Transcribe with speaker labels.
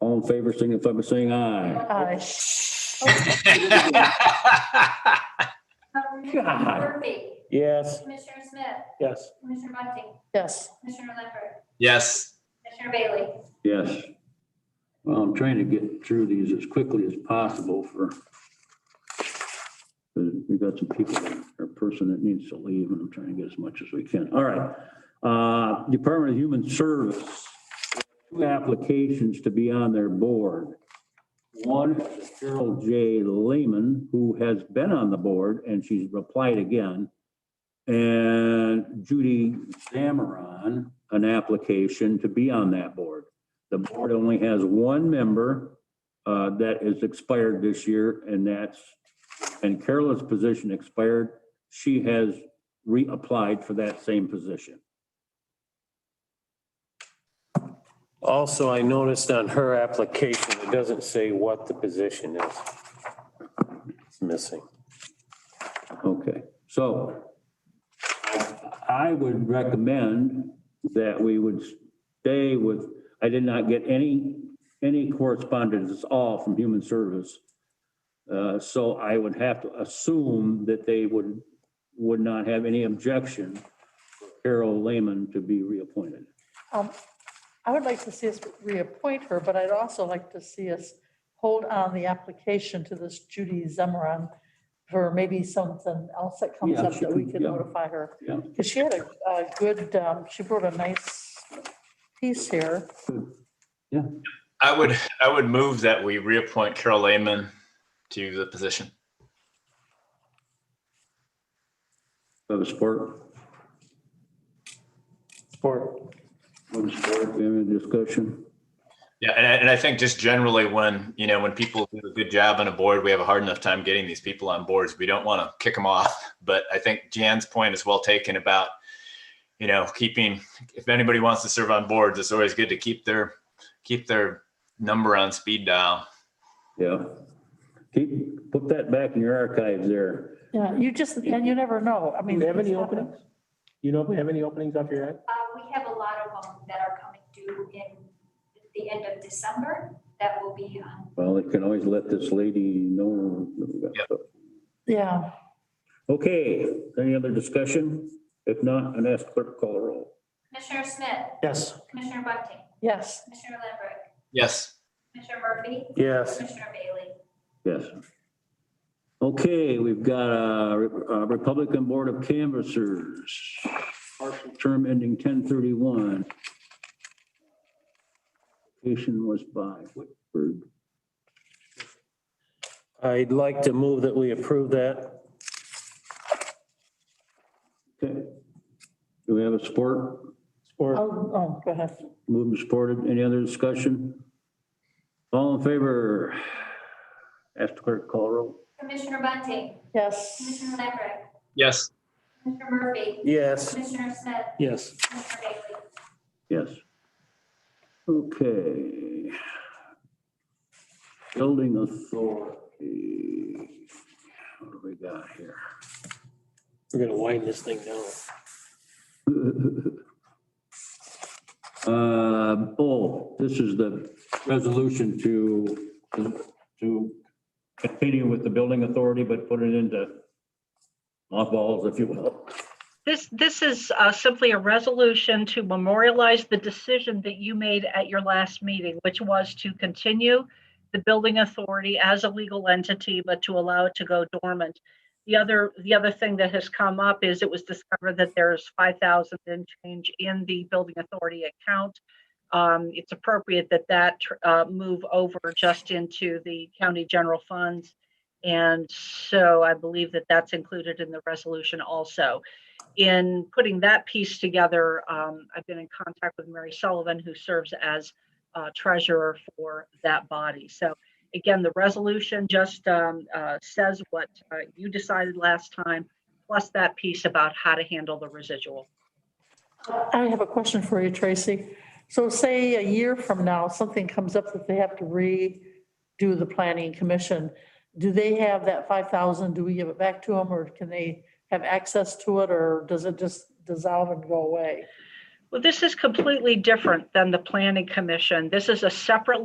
Speaker 1: All in favor, signify by saying aye.
Speaker 2: Uh,
Speaker 1: God.
Speaker 3: Murphy,
Speaker 1: Yes.
Speaker 3: Commissioner Smith,
Speaker 1: Yes.
Speaker 3: Commissioner Bunting,
Speaker 2: Yes,
Speaker 3: Commissioner Lambert,
Speaker 4: Yes,
Speaker 3: Commissioner Bailey.
Speaker 1: Yes. Well, I'm trying to get through these as quickly as possible for we've got some people, or person that needs to leave, and I'm trying to get as much as we can. All right. Uh, Department of Human Service, two applications to be on their board. One is Cheryl J. Lehman, who has been on the board, and she's replied again. And Judy Zamaron, an application to be on that board. The board only has one member uh, that is expired this year, and that's, and Carolyn's position expired. She has reapplied for that same position.
Speaker 5: Also, I noticed on her application, it doesn't say what the position is. It's missing.
Speaker 1: Okay, so I- I would recommend that we would stay with, I did not get any, any correspondence at all from Human Service. Uh, So I would have to assume that they would, would not have any objection for Carol Lehman to be reappointed.
Speaker 2: um, I would like to see us reappoint her, but I'd also like to see us hold on the application to this Judy Zemran for maybe something else that comes
Speaker 1: Yeah,
Speaker 2: up
Speaker 1: she
Speaker 2: that we
Speaker 1: could-
Speaker 2: can
Speaker 1: yeah.
Speaker 2: notify her.
Speaker 1: Yeah.
Speaker 2: Because she had a, a good, um, she wrote a nice piece here.
Speaker 4: I would, I would move that we reappoint Carol Lehman to the position.
Speaker 1: Have a support? Support. Support, any discussion?
Speaker 4: Yeah, and I, and I think just generally when, you know, when people do a good job on a board, we have a hard enough time getting these people on boards. We don't want to kick them off. But I think Jan's point is well taken about, you know, keeping, if anybody wants to serve on boards, it's always good to keep their, keep their number on speed dial.
Speaker 1: Yeah. Keep, put that back in your archives there.
Speaker 2: Yeah, you just, and you never know. I
Speaker 6: Do
Speaker 2: mean.
Speaker 6: you have
Speaker 2: it's
Speaker 6: any
Speaker 2: happened.
Speaker 6: openings? You know, if we have any openings off your head?
Speaker 3: Uh, we have a lot of them that are coming due in the end of December that will be um, on.
Speaker 1: Well, it can always let this lady know. that we got stuff.
Speaker 2: Yeah,
Speaker 1: Okay, any other discussion? If not, I'd ask clerk to call the roll.
Speaker 3: Commissioner Smith,
Speaker 6: Yes.
Speaker 3: Commissioner Bunting,
Speaker 2: yes,
Speaker 3: Commissioner Lambert,
Speaker 4: Yes,
Speaker 3: Commissioner Murphy,
Speaker 6: Yes.
Speaker 3: Commissioner Bailey.
Speaker 1: Yes. Okay, we've got uh, uh, Republican Board of Canvassers, partial term ending 1031. Application was by Whitford.
Speaker 5: I'd like to move that we approve that.
Speaker 1: Okay. Do we have a support?
Speaker 2: oh,
Speaker 6: Or
Speaker 2: oh, go ahead.
Speaker 1: Moved and supported. Any other discussion? All in favor? Ask the clerk to call the roll.
Speaker 3: Commissioner Bunting,
Speaker 2: Yes,
Speaker 3: Commissioner Lambert,
Speaker 4: yes,
Speaker 3: Commissioner Murphy,
Speaker 5: Yes.
Speaker 3: Commissioner Smith,
Speaker 6: yes.
Speaker 3: Commissioner Bailey.
Speaker 1: Yes. Okay. Building authority. What do we got here?
Speaker 6: We're gonna wind this thing down.
Speaker 1: Uh, oh, this is the resolution to, to continue with the building authority, but put it into mothballs, if you will.
Speaker 7: This, this is uh, simply a resolution to memorialize the decision that you made at your last meeting, which was to continue the building authority as a legal entity, but to allow it to go dormant. The other, the other thing that has come up is it was discovered that there's 5,000 and change in the building authority account. Um, It's appropriate that that uh, move over just into the county general funds. And so I believe that that's included in the resolution also in putting that piece together, um, I've been in contact with Mary Sullivan, who serves as uh, treasurer for that body. So again, the resolution just um, uh, says what uh, you decided last time, plus that piece about how to handle the residual.
Speaker 2: I have a question for you, Tracy. So say a year from now, something comes up that they have to redo the planning commission. Do they have that 5,000? Do we give it back to them or can they have access to it or does it just dissolve and go away?
Speaker 7: Well, this is completely different than the planning commission. This is a separate